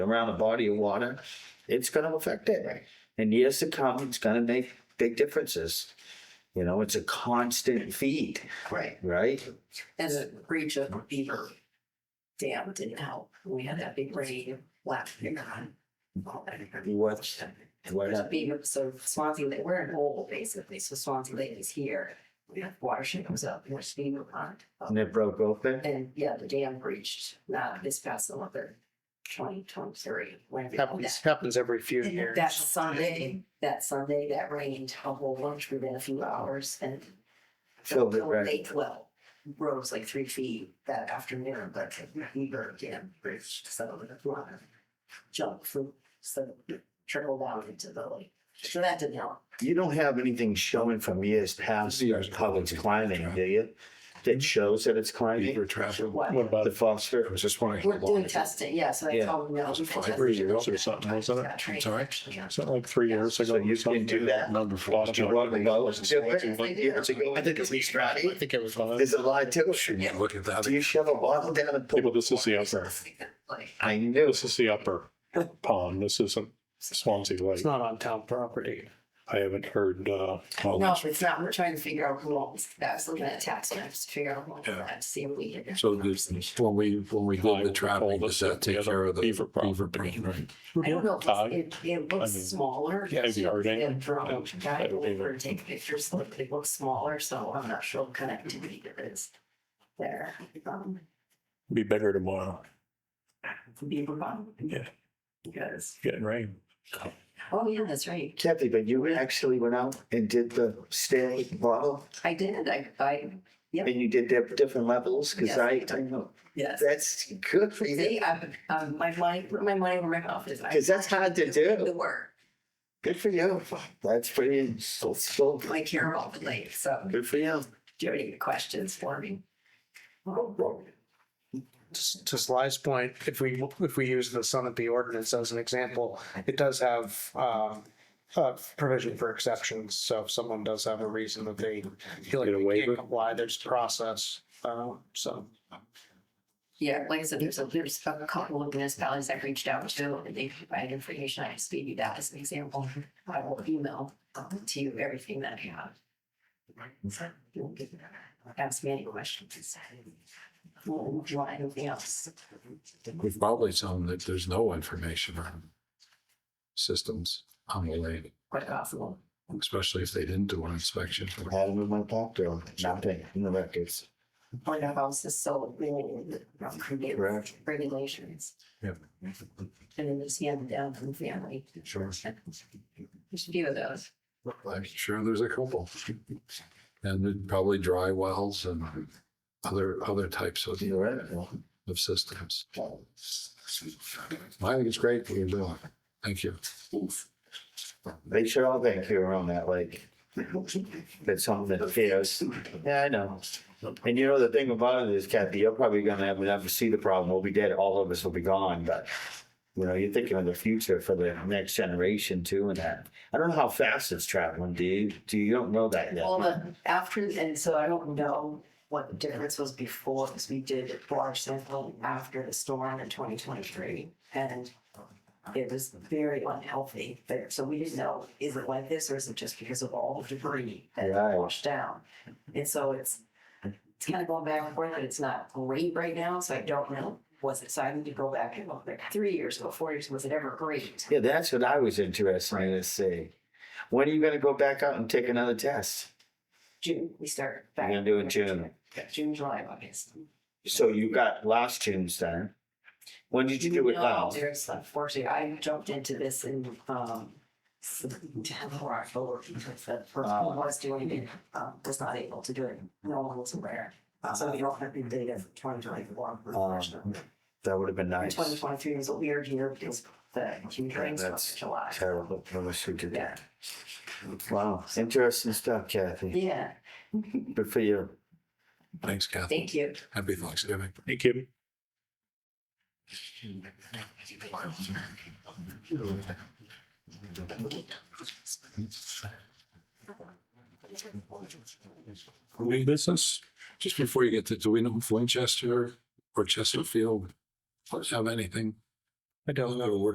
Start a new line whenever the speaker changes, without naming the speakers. around a body of water, it's gonna affect it. And years to come, it's gonna make big differences. You know, it's a constant feed,
Right,
right?
and the breach of Beaver Dam didn't help. We had that big rain last year.
What, what happened?
Beaver, so Swansea, Lake- we're in hole basically, so Swansea Lake is here. We have Watershed comes up, and there's Beaver Pond.
And it broke open?
And yeah, the dam breached, uh, this past November, twenty twenty-three. Oh,
Happens, happens every few years.
That Sunday, that Sunday, that rained a whole bunch within a few hours and
Filled it,
Well,
right?
They well, rose like three feet that afternoon, but we burned again, bridge, so a lot of junk food, so trickled down into the lake. So that didn't help.
You don't have anything showing from years past
Years.
how it's climbing, do you? That shows that it's climbing,
Beaver travel.
What?
What about
the
the
I
phosphor?
was just wondering. how
We're
long
doing
it-
testing, yeah, so that's
Yeah.
all we know.
Was it
We've been
five
testing.
years or something, wasn't it?
Yeah, training.
I'm sorry?
Yeah.
Something like three years ago.
So you can do that?
Number four.
Did you
I
What about- Years ago, I think it's least right.
think it was. one of
There's
those.
a lot to it.
Shouldn't you look at that?
Do you shove a bottle down a pool?
People, this is the upper,
Like,
I knew.
this is the upper pond. This isn't Swansea Lake.
It's not on town property.
I haven't heard, uh, well,
No, it's not. We're trying to figure out who owns that. I was looking at tax maps to figure out who owns
Yeah.
that, to see if we can.
So this, when we, when we
I
did the
will call
trapping, does
this
that take
the
care of the
Beaver
beaver
property.
problem? Right.
I don't know,
Todd?
it, it looks
I mean,
smaller.
have you heard
The
anything?
drone guy
I don't
will
either.
over take pictures, look, it looks smaller, so I'm not sure what connectivity there is there. Um,
Be bigger tomorrow.
Beaver Pond.
Yeah.
Because,
Getting rain.
oh yeah, that's right.
Kathy, but you actually went out and did the stair bottle
I did, I, I,
and you did their different levels? Cause
Yes.
I, I know,
yes.
that's good for you.
See, I'm, um, my money, put my money where my mouth is. I-
Cause that's hard to
The
do.
work,
Good for you. That's pretty, so, so,
like here all the lake, so
good for you.
do you have any questions for me?
Just to Sly's point, if we, if we use the Sunapee ordinance as an example, it does have, um, uh, provision for exceptions. So if someone does have a reason that they feel like
Get a
they
waiver?
can't comply, there's process. Uh, so
Yeah, like I said, there's a, there's a couple of municipalities I've reached out to, and they provide information, I just gave you that as an example. I will email um, to you everything that I have. So, you'll get- Ask me any questions. Well, do you want anything else?
We've probably shown that there's no information on systems on the lake,
Quite possible.
especially if they didn't do an inspection.
Had them in my pocket, though. nothing in the records.
Or the house is so old, from creative
Right.
regulations,
Yeah.
and then it's handed down from family.
Sure.
There's a few of those.
I'm sure there's a couple. And there'd probably dry wells and other, other types of,
You're right. Well,
of systems. I think it's great what you're doing. Thank you.
They should all thank you around that lake. That's something that fears. Yeah, I know. And you know, the thing about it is Kathy, you're probably gonna have, never see the problem. We'll be dead. All of us will be gone, but you know, you're thinking of the future for the next generation too and that. I don't know how fast it's traveling. Do you, do you you don't know that yet?
Well, the after, and so I don't know what the difference was before, because we did water sampling after the storm in twenty twenty-three. And it was very unhealthy there, so we didn't know, is it like this or is it just because of all the debris that
Right.
washed down? And so it's, it's kind of going back and forth, and it's not great right now, so I don't know. Was it, so I need to go back and look, like three years ago, four years, was it ever great?
Yeah, that's what I was interested in to see. When are you gonna go back out and take another test?
June, we start
You're
back.
gonna do it in June.
Yeah, June, July, August.
So you got last June's then. When did you do it
No,
last?
There's unfortunately, I jumped into this in, um, September, October, because the person
Uh.
who was doing it, um, was not able to do it. No one was aware. Uh, So we don't have the data for twenty twenty-four.
Um, That would have been nice.
Twenty twenty-three was a weird year because the huge
Yeah,
rains
that's
in July.
Terrible. I wish we did
Yeah.
that. Wow, interesting stuff, Kathy.
Yeah,
Good for you.
Thanks, Kathy.
thank you.
Happy Thanksgiving.
Hey, Kim.
New business? Just before you get to, do we know if Winchester or Chesterfield have anything
I don't know.
We're